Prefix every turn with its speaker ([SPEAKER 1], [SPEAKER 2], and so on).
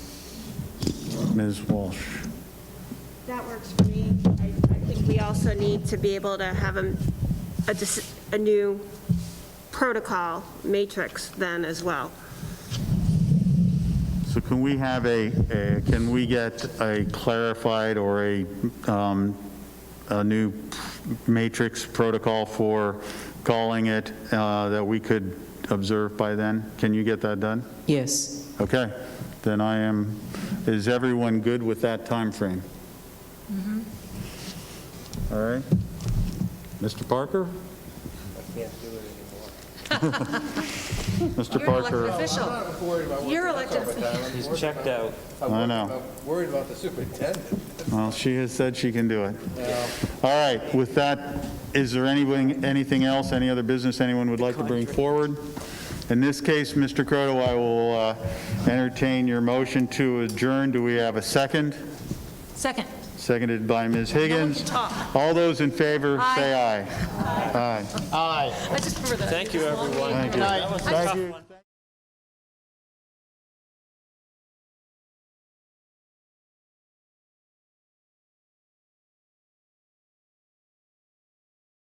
[SPEAKER 1] Ms. Walsh.
[SPEAKER 2] That works for me. I I think we also need to be able to have a, a dis- a new protocol matrix then as well.
[SPEAKER 1] So can we have a, a- can we get a clarified or a, um, a new matrix protocol for calling it uh, that we could observe by then? Can you get that done?
[SPEAKER 3] Yes.
[SPEAKER 1] Okay, then I am, is everyone good with that timeframe? All right. Mr. Parker? I can't do it anymore. Mr.
[SPEAKER 4] You're an
[SPEAKER 1] Parker,
[SPEAKER 4] elected official. You're elected.
[SPEAKER 5] He's checked out.
[SPEAKER 1] I know.
[SPEAKER 6] Worried about the superintendent.
[SPEAKER 1] Well, she has said she can do it. All right, with that, is there anything, anything else, any other business anyone would like to bring forward? In this case, Mr. Croto, I will uh, entertain your motion to adjourn. Do we have a second?
[SPEAKER 4] Second.
[SPEAKER 1] Seconded by Ms.
[SPEAKER 4] one can
[SPEAKER 1] Higgins.
[SPEAKER 4] talk.
[SPEAKER 1] All those in favor, say aye. Aye.
[SPEAKER 4] I just remember that.
[SPEAKER 5] Thank you, everyone.
[SPEAKER 1] Thank you.
[SPEAKER 5] That was a tough one.